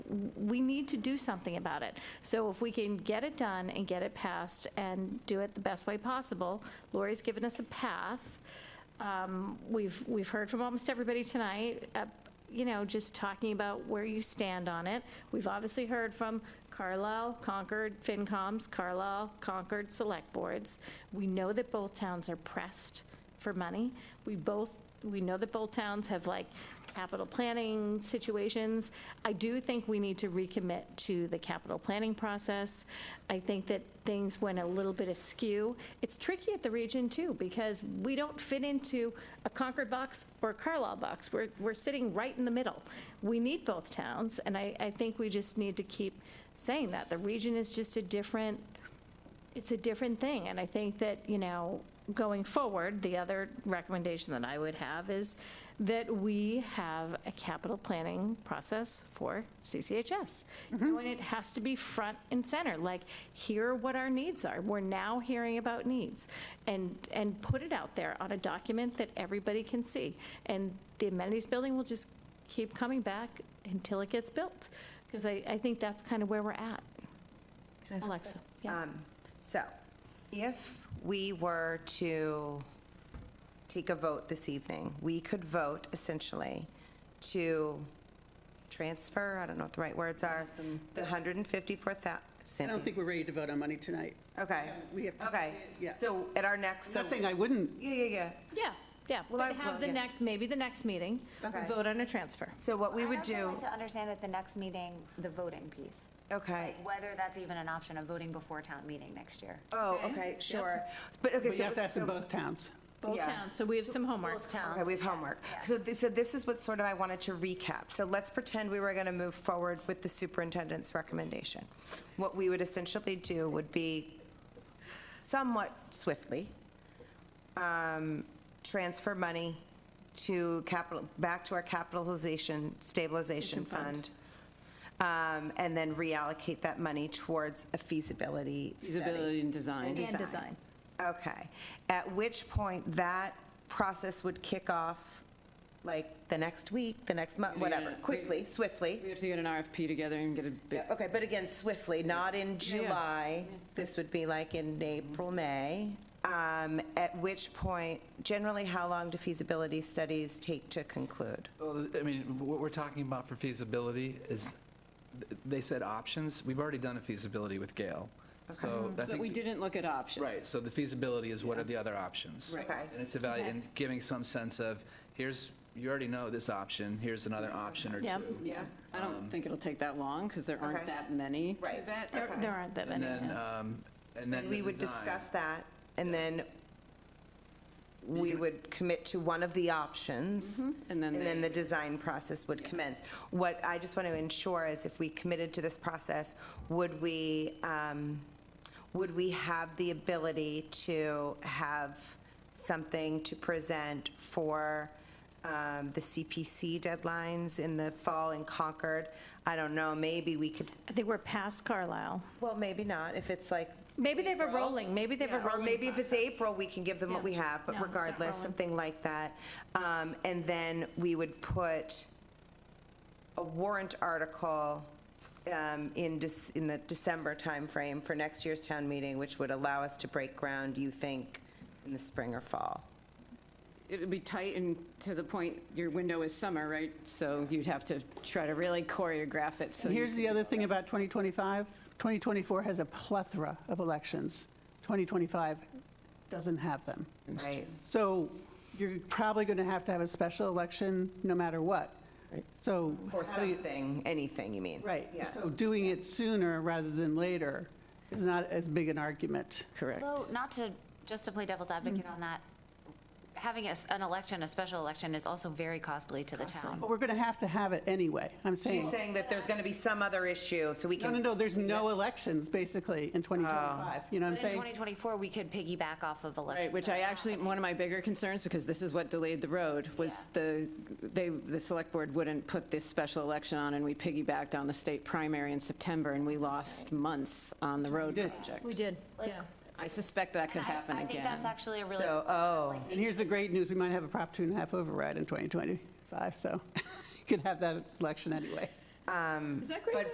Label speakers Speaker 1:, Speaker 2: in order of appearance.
Speaker 1: we need to do something about it. So if we can get it done and get it passed and do it the best way possible, Lori's given us a path. Um, We've, we've heard from almost everybody tonight, uh, you know, just talking about where you stand on it. We've obviously heard from Carlisle, Concord, FinComs, Carlisle, Concord Select Boards. We know that both towns are pressed for money. We both, we know that both towns have like capital planning situations. I do think we need to recommit to the capital planning process. I think that things went a little bit askew. It's tricky at the region too, because we don't fit into a Concord box or a Carlisle box. We're, we're sitting right in the middle. We need both towns, and I, I think we just need to keep saying that. The region is just a different it's a different thing, and I think that, you know, going forward, the other recommendation that I would have is that we have a capital planning process for CCHS. You know, And it has to be front and center, like, here are what our needs are. We're now hearing about needs. And, and put it out there on a document that everybody can see. And the amenities building will just keep coming back until it gets built, because I, I think that's kind of where we're at. Alexa. Yeah.
Speaker 2: Um, So, if we were to take a vote this evening, we could vote essentially to transfer, I don't know what the right words are, the 154,000.
Speaker 3: I don't think we're ready to vote on money tonight.
Speaker 2: Okay.
Speaker 3: We have to-
Speaker 2: Okay.
Speaker 3: yeah.
Speaker 2: So at our next,
Speaker 3: I'm
Speaker 2: so,
Speaker 3: not saying
Speaker 2: yeah,
Speaker 3: I wouldn't,
Speaker 2: yeah, yeah.
Speaker 1: Yeah, yeah,
Speaker 2: Well,
Speaker 1: we'll
Speaker 2: I-
Speaker 1: have
Speaker 2: well,
Speaker 1: the
Speaker 2: yeah.
Speaker 1: next, maybe the next meeting, we
Speaker 2: Okay.
Speaker 1: vote on a transfer.
Speaker 2: So what we would
Speaker 4: I'd also
Speaker 2: do,
Speaker 4: like to understand at the next meeting, the voting piece,
Speaker 2: okay.
Speaker 4: like whether that's even an option of voting before town meeting next year.
Speaker 2: Oh,
Speaker 1: Okay.
Speaker 2: okay,
Speaker 1: Yep.
Speaker 2: sure. But, okay,
Speaker 3: but you
Speaker 2: so,
Speaker 3: have to ask in
Speaker 2: so-
Speaker 3: both towns.
Speaker 1: Both
Speaker 2: Yeah.
Speaker 1: towns, so we have some homework.
Speaker 4: Both towns.
Speaker 2: Okay, we have homework. So this, so this is what sort of I wanted to recap. So let's pretend we were going to move forward with the superintendent's recommendation. What we would essentially do would be somewhat swiftly, um, transfer money to capital, back to our capitalization stabilization fund. um, And then reallocate that money towards a feasibility study.
Speaker 5: Feasibility and design.
Speaker 1: And design.
Speaker 2: Okay. At which point, that process would kick off, like, the next week, the next month,
Speaker 5: Yeah, yeah,
Speaker 2: whatever,
Speaker 5: yeah.
Speaker 2: quickly, swiftly.
Speaker 5: We have to get an RFP together and get a bid.
Speaker 2: Okay, but again, swiftly, not in
Speaker 5: yeah.
Speaker 2: July. This would be like in April, May. Um, At which point, generally, how long do feasibility studies take to conclude?
Speaker 6: Well, I mean, what we're talking about for feasibility is, they said options. We've already done a feasibility with Gale. So I
Speaker 5: But
Speaker 6: think
Speaker 5: we
Speaker 6: the-
Speaker 5: didn't look at options.
Speaker 6: Right, so the feasibility is what are the other options?
Speaker 5: Right.
Speaker 2: Okay.
Speaker 6: And it's about, and giving some sense of, here's, you already know this option, here's another option or two.
Speaker 1: Yep.
Speaker 5: Yeah. I don't think it'll take that long because there aren't
Speaker 2: Okay.
Speaker 5: that many. to
Speaker 2: Right.
Speaker 5: vet.
Speaker 1: There
Speaker 2: Okay.
Speaker 1: there aren't that
Speaker 6: And
Speaker 1: many.
Speaker 6: then,
Speaker 1: yeah.
Speaker 6: um, and then
Speaker 2: We
Speaker 6: the
Speaker 2: would
Speaker 6: design.
Speaker 2: discuss that, and then
Speaker 6: Mm-hmm.
Speaker 2: we would commit to one of the options.
Speaker 5: Mm-hmm. And then
Speaker 2: And then
Speaker 5: they-
Speaker 2: the design process would commence. What I just want to ensure is if we committed to this process, would we, um, would we have the ability to have something to present for um, the CPC deadlines in the fall in Concord? I don't know, maybe we could,
Speaker 1: I think we're past Carlisle.
Speaker 2: well, maybe not, if it's like
Speaker 1: Maybe they have a rolling, maybe they have a
Speaker 2: or
Speaker 1: rolling.
Speaker 2: maybe if it's
Speaker 1: process.
Speaker 2: April, we can give them what
Speaker 1: Yeah.
Speaker 2: we have,
Speaker 1: No,
Speaker 2: but
Speaker 1: it's not
Speaker 2: regardless,
Speaker 1: rolling.
Speaker 2: something like that. Um, And then we would put a warrant article um, in, Dec- in the December timeframe for next year's town meeting, which would allow us to break ground, you think, in the spring or fall?
Speaker 5: It'd be tight and to the point, your window is summer, right? So you'd have to try to really choreograph it so.
Speaker 3: And
Speaker 5: you
Speaker 3: here's the other thing about 2025, 2024 has a plethora of elections. 2025 doesn't have them.
Speaker 2: Right.
Speaker 3: So you're probably going to have to have a special election no matter what. So.
Speaker 2: Or
Speaker 3: having-
Speaker 2: something, anything, you mean?
Speaker 3: Right,
Speaker 2: Yeah.
Speaker 3: so doing it sooner rather than later is not as big an argument.
Speaker 5: Correct.
Speaker 4: Although, not to, just to play devil's advocate on that, having a s- an election, a special election is also very costly to the town.
Speaker 3: But we're going to have to have it anyway, I'm saying.
Speaker 2: She's saying that there's going to be some other issue, so we
Speaker 3: No,
Speaker 2: can.
Speaker 3: no, no, there's no elections, basically, in 2025, you know what I'm
Speaker 4: But in
Speaker 3: saying?
Speaker 4: 2024, we could piggyback off of elections.
Speaker 5: Right, which I actually, one of my bigger concerns, because this is what delayed the road, was the, they, the select board wouldn't put this special election on, and we piggybacked on the state primary in September, and we lost months on the road
Speaker 3: did.
Speaker 5: project.
Speaker 1: We did, yeah.
Speaker 5: I suspect that could
Speaker 4: And I-
Speaker 5: happen again.
Speaker 4: I think that's actually a really.
Speaker 2: So, oh,
Speaker 3: And here's the great news, we might have a Prop two and a half override in 2025, so you could have that election anyway.
Speaker 1: Um,
Speaker 7: Is that great?
Speaker 1: but